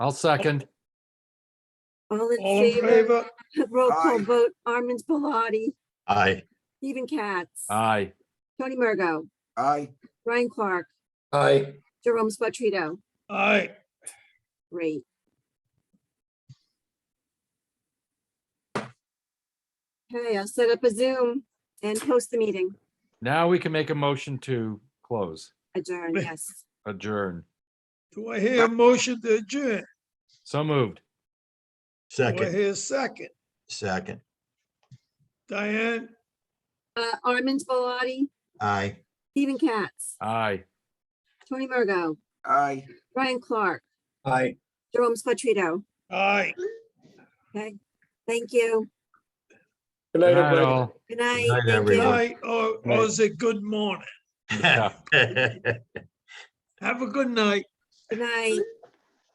I'll second. All in All in favor? favor? Roll call Aye. vote, Armin's Biladi, Aye. Stephen Katz, Aye. Tony Mergo, Aye. Ryan Clark, Aye. Jerome Spatrito. Aye. Great. Okay, I'll set up a Zoom and post the meeting. Now we can make a motion to close, Adjourn, Wait. yes. adjourn. Do I hear a motion to adjourn? So moved. Do I Second, hear a second? second. Diane? Uh, Armin's Biladi, Aye. Stephen Katz, Aye. Tony Mergo, Aye. Ryan Clark, Aye. Jerome Spatrito. Aye. Okay, thank you. Good Good night, night, everybody. all. Good night. night, Thank you. everyone. Aye, or, or is it good morning? Yeah. Have a good night. Good night.